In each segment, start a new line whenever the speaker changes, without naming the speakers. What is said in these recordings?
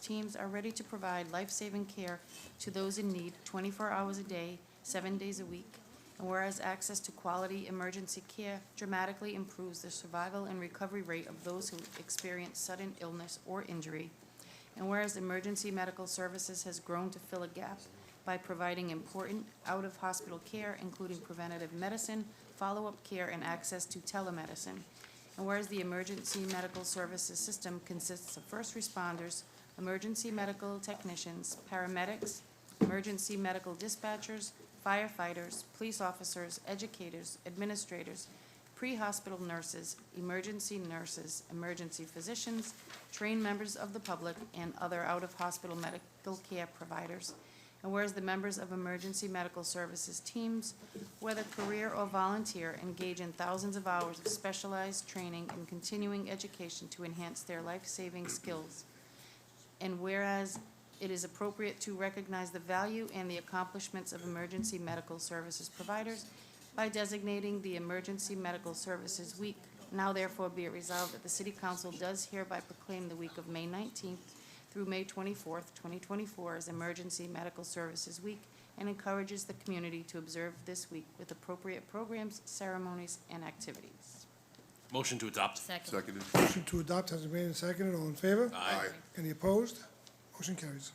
teams are ready to provide life-saving care to those in need 24 hours a day, seven days a week. And whereas access to quality emergency care dramatically improves the survival and recovery rate of those who experience sudden illness or injury. And whereas emergency medical services has grown to fill a gap by providing important out-of-hospital care, including preventative medicine, follow-up care, and access to telemedicine. And whereas the emergency medical services system consists of first responders, emergency medical technicians, paramedics, emergency medical dispatchers, firefighters, police officers, educators, administrators, pre-hospital nurses, emergency nurses, emergency physicians, trained members of the public, and other out-of-hospital medical care providers. And whereas the members of emergency medical services teams, whether career or volunteer, engage in thousands of hours of specialized training and continuing education to enhance their life-saving skills. And whereas it is appropriate to recognize the value and the accomplishments of emergency medical services providers by designating the Emergency Medical Services Week, now therefore be it resolved that the City Council does hereby proclaim the week of May nineteenth through May twenty-fourth, twenty twenty-four as Emergency Medical Services Week and encourages the community to observe this week with appropriate programs, ceremonies, and activities.
Motion to adopt.
Second.
Seconded.
Motion to adopt has been made and seconded. All in favor?
Aye.
Any opposed? Motion carries.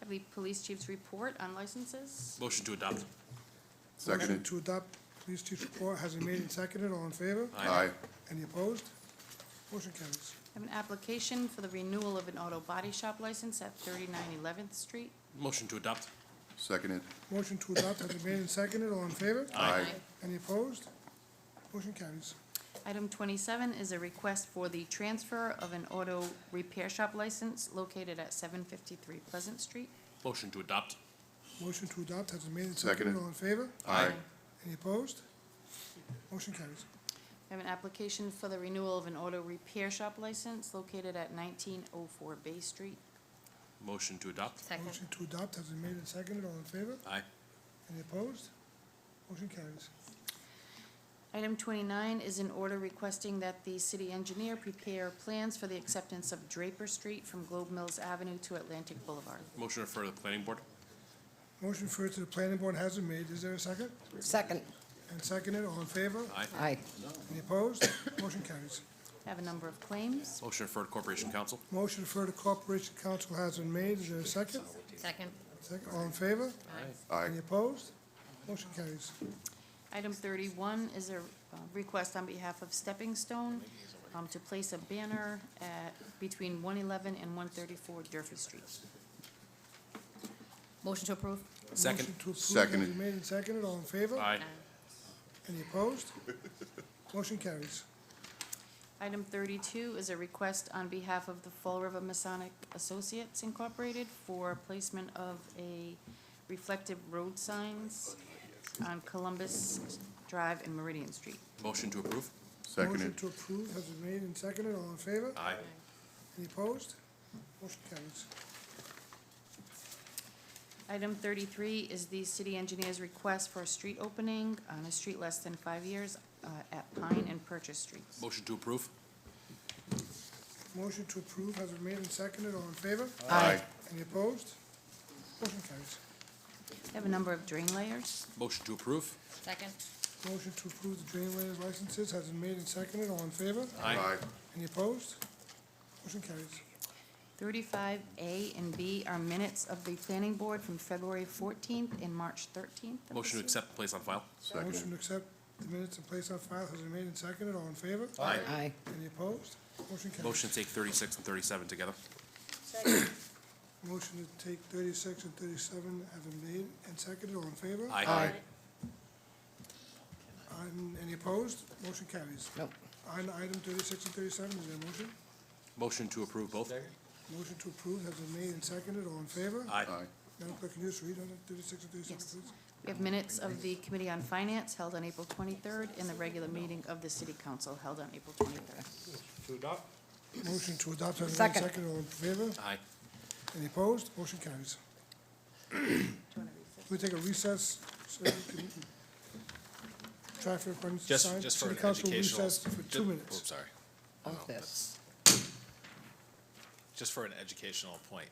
Have the police chief's report on licenses?
Motion to adopt.
Motion
Seconded.
to adopt police chief's report has been made and seconded. All in favor?
Aye.
Any opposed? Motion carries.
I have an application for the renewal of an auto body shop license at 39 11th Street.
Motion to adopt.
Seconded.
Motion to adopt has been made and seconded. All in favor?
Aye.
Any opposed? Motion carries.
Item 27 is a request for the transfer of an auto repair shop license located at 753 Pleasant Street.
Motion to adopt.
Motion to adopt has been made and seconded.
Seconded.
All in favor?
Aye.
Any opposed? Motion carries.
I have an application for the renewal of an auto repair shop license located at 1904 Bay Street.
Motion to adopt.
Second.
Motion to adopt has been made and seconded. All in favor?
Aye.
Any opposed? Motion carries.
Item 29 is an order requesting that the city engineer prepare plans for the acceptance of Draper Street from Globe Mills Avenue to Atlantic Boulevard.
Motion to refer to the planning board.
Motion referred to the planning board has been made. Is there a second?
Second.
And seconded. All in favor?
Aye.
Aye.
Any opposed? Motion carries.
I have a number of claims.
Motion to refer to corporation council.
Motion referred to corporation council has been made. Is there a second?
Second.
Second. All in favor?
Aye.
Any opposed? Motion carries.
Item thirty-one is a uh, request on behalf of Stepping Stone um, to place a banner at, between one eleven and one thirty-four Durfee Street.
Motion to approve.
Second.
Motion to approve has
Seconded.
been made and seconded. All in favor?
Aye.
Any opposed? Motion carries.
Item thirty-two is a request on behalf of the Fall River Masonic Associates Incorporated for placement of a reflective road signs on Columbus Drive and Meridian Street.
Motion to approve.
Motion
Seconded.
to approve has been made and seconded. All in favor?
Aye.
Any opposed? Motion carries.
Item thirty-three is the city engineer's request for a street opening on a street less than five years uh, at Pine and Purchase Streets.
Motion to approve.
Motion to approve has been made and seconded. All in favor?
Aye.
Any opposed? Motion carries.
I have a number of drain layers.
Motion to approve.
Second.
Motion to approve the drain layers licenses has been made and seconded. All in favor?
Aye.
Any opposed? Motion carries.
Thirty-five A and B are minutes of the planning board from February fourteenth and March thirteenth.
Motion to accept and place on file.
Seconded.
Motion to accept the minutes and place on file has been made and seconded. All in favor?
Aye.
Aye.
Any opposed? Motion carries.
Motion to take thirty-six and thirty-seven together.
Motion to take thirty-six and thirty-seven have been made and seconded. All in favor?
Aye.
Um, Any opposed? Motion carries.
Nope.
On item thirty-six and thirty-seven, is there a motion?
Motion to approve both.
Motion to approve has been made and seconded. All in favor?
Aye.
Aye.
Madam Clerk, can you just read on it, thirty-six and thirty-seven,
Yes.
please?
We have minutes of the Committee on Finance held on April twenty-third and the regular meeting of the city council held on April twenty-third.
Motion to adopt has been made and
Second.
seconded. All in favor?
Aye.
Any opposed? Motion carries. We take a recess, so we can try for questions.
Just, just for an educational.
City Council recess for
ju-
two minutes.
Oops, sorry.
Of this.
just for an educational point,